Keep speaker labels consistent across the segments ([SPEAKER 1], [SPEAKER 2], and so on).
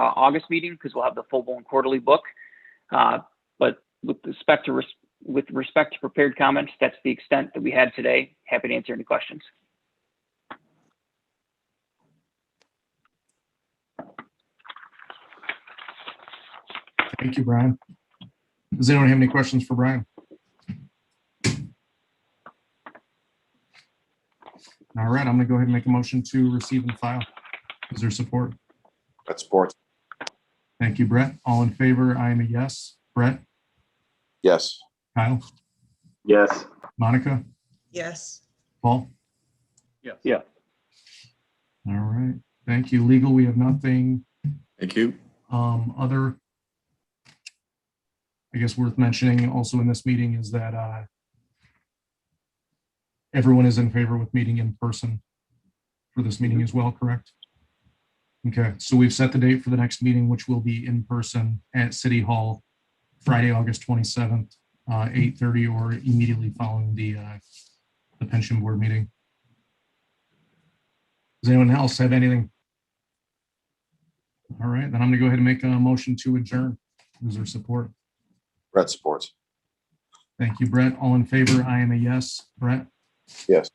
[SPEAKER 1] uh, August meeting because we'll have the full-blown quarterly book. Uh, But with respect to, res- with respect to prepared comments, that's the extent that we had today. Happy to answer any questions.
[SPEAKER 2] Thank you, Brian. Does anyone have any questions for Brian? All right, I'm gonna go ahead and make a motion to receive and file. Is there support?
[SPEAKER 3] That's sports.
[SPEAKER 2] Thank you, Brett. All in favor? I am a yes. Brett,
[SPEAKER 3] Yes.
[SPEAKER 2] Kyle,
[SPEAKER 4] Yes.
[SPEAKER 2] Monica,
[SPEAKER 5] Yes,
[SPEAKER 2] Paul?
[SPEAKER 4] Yes.
[SPEAKER 1] Yeah.
[SPEAKER 2] All right, thank you. Legal, we have nothing.
[SPEAKER 3] Thank you.
[SPEAKER 2] Um, other. I guess worth mentioning also in this meeting is that, uh. Everyone is in favor with meeting in person for this meeting as well, correct? Okay, so we've set the date for the next meeting, which will be in person at City Hall, Friday, August twenty-seventh, uh, eight thirty or immediately following the, uh, the pension board meeting. Does anyone else have anything all right, then I'm gonna go ahead and make a motion to adjourn. Is there support?
[SPEAKER 3] Brett supports.
[SPEAKER 2] Thank you, Brett. All in favor? I am a yes. Brett,
[SPEAKER 3] Yes.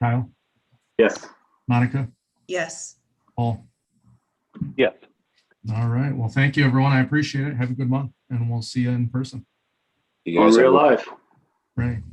[SPEAKER 2] Kyle,
[SPEAKER 4] Yes.
[SPEAKER 2] Monica,
[SPEAKER 5] yes.
[SPEAKER 2] Paul.
[SPEAKER 1] Yes.
[SPEAKER 2] All right, well, thank you, everyone. I appreciate it. Have a good month and we'll see you in person.
[SPEAKER 3] You
[SPEAKER 4] On
[SPEAKER 3] guys have a-
[SPEAKER 4] real life.
[SPEAKER 2] Right.